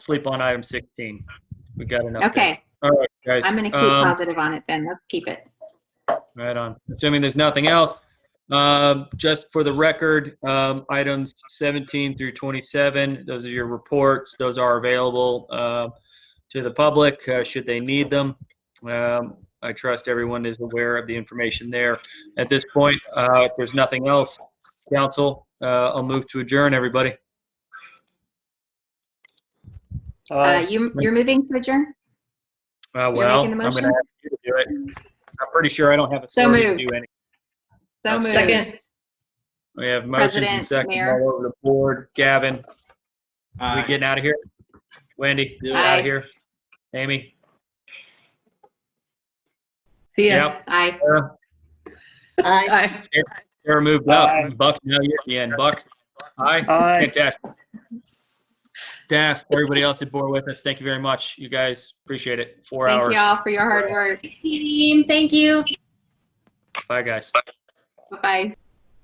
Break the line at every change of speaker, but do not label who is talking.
sleep on item 16. We got enough.
Okay,
All right, guys.
I'm going to keep
um,
positive on it then. Let's keep it.
Right on. Assuming there's nothing else, um, just for the record, um, items 17 through 27, those are your reports. Those are available uh, to the public uh, should they need them. Um, I trust everyone is aware of the information there. At this point, uh, if there's nothing else, council, uh, I'll move to adjourn, everybody.
Uh, you, you're moving to adjourn?
Uh,
You're
well, I'm
making the
gonna have
motion?
you to do it. I'm pretty sure I don't have
So
authority to
moved.
do any.
So moved.
Second. We have motions and
President,
seconds
Mayor.
all over the board. Gavin, we
Aye.
getting out of here? Wendy,
Do it.
out
Aye.
of here. Amy,
See ya.
yep.
Aye.
Sarah,
Aye.
Bye.
Sarah moved
Aye.
up. Buck, now you're at the end. Buck, aye. Fantastic. Staff, everybody else at board with us, thank you very much. You guys appreciate it. Four
Thank
hours.
you all for your hard work.
Team, thank you.
Bye, guys.
Bye-bye.